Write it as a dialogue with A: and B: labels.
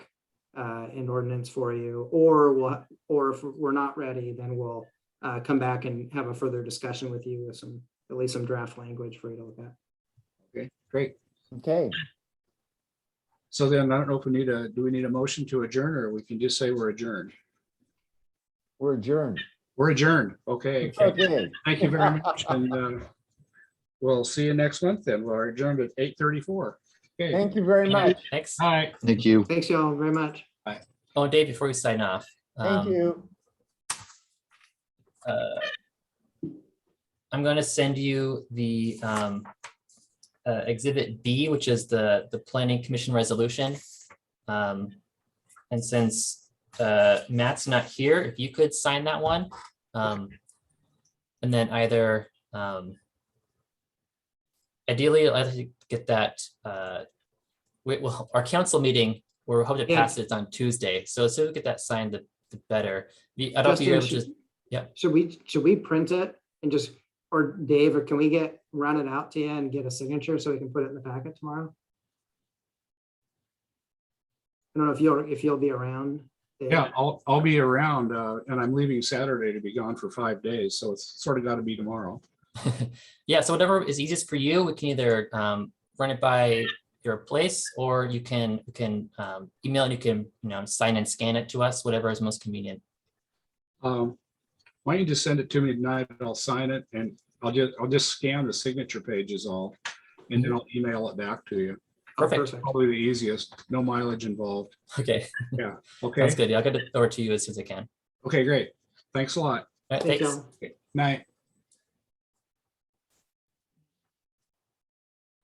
A: uh, an ordinance for you, or what, or if we're not ready, then we'll uh, come back and have a further discussion with you with some, at least some draft language for you to look at.
B: Okay, great.
C: Okay,
B: So then I don't know if we need a, do we need a motion to adjourn or we can just say we're adjourned?
C: we're adjourned.
B: We're adjourned. Okay.
C: Okay,
B: Thank you very much. And uh, we'll see you next month then. We're adjourned at eight thirty-four. Okay.
C: thank you very much.
D: Thanks.
B: Hi.
E: Thank you.
A: Thanks y'all very much.
D: Oh, Dave, before we sign off.
C: Thank
D: um,
C: you.
D: uh, I'm gonna send you the um, uh, exhibit B, which is the, the planning commission resolution. Um, And since uh, Matt's not here, if you could sign that one. um, And then either um, ideally, I'd like to get that, uh, we, well, our council meeting, we're hoping to
A: Yeah.
D: pass it on Tuesday. So as soon as we get that signed, the, the better. The- I don't know if
A: Justin,
D: you're able to
A: should-
D: just- yeah.
A: Should we, should we print it and just, or Dave, or can we get, run it out to you and get a signature so we can put it in the packet tomorrow? I don't know if you'll, if you'll be around. Dave.
B: Yeah, I'll, I'll be around uh, and I'm leaving Saturday to be gone for five days. So it's sort of got to be tomorrow.
D: Yeah, so whatever is easiest for you, we can either um, run it by your place or you can, you can um, email and you can, you know, sign and scan it to us, whatever is most convenient.
B: Um, Why don't you just send it to me tonight? and I'll sign it and I'll just, I'll just scan the signature pages all. And then I'll email it back to you.
A: Oh,
D: perfect.
B: Probably the easiest, no mileage involved.
D: Okay,
B: Okay,
D: that's good. I'll get it over to you as soon as I can.
B: okay, great. Thanks a lot.
D: All right,
A: Thank
D: Thanks.
A: you.
B: Night.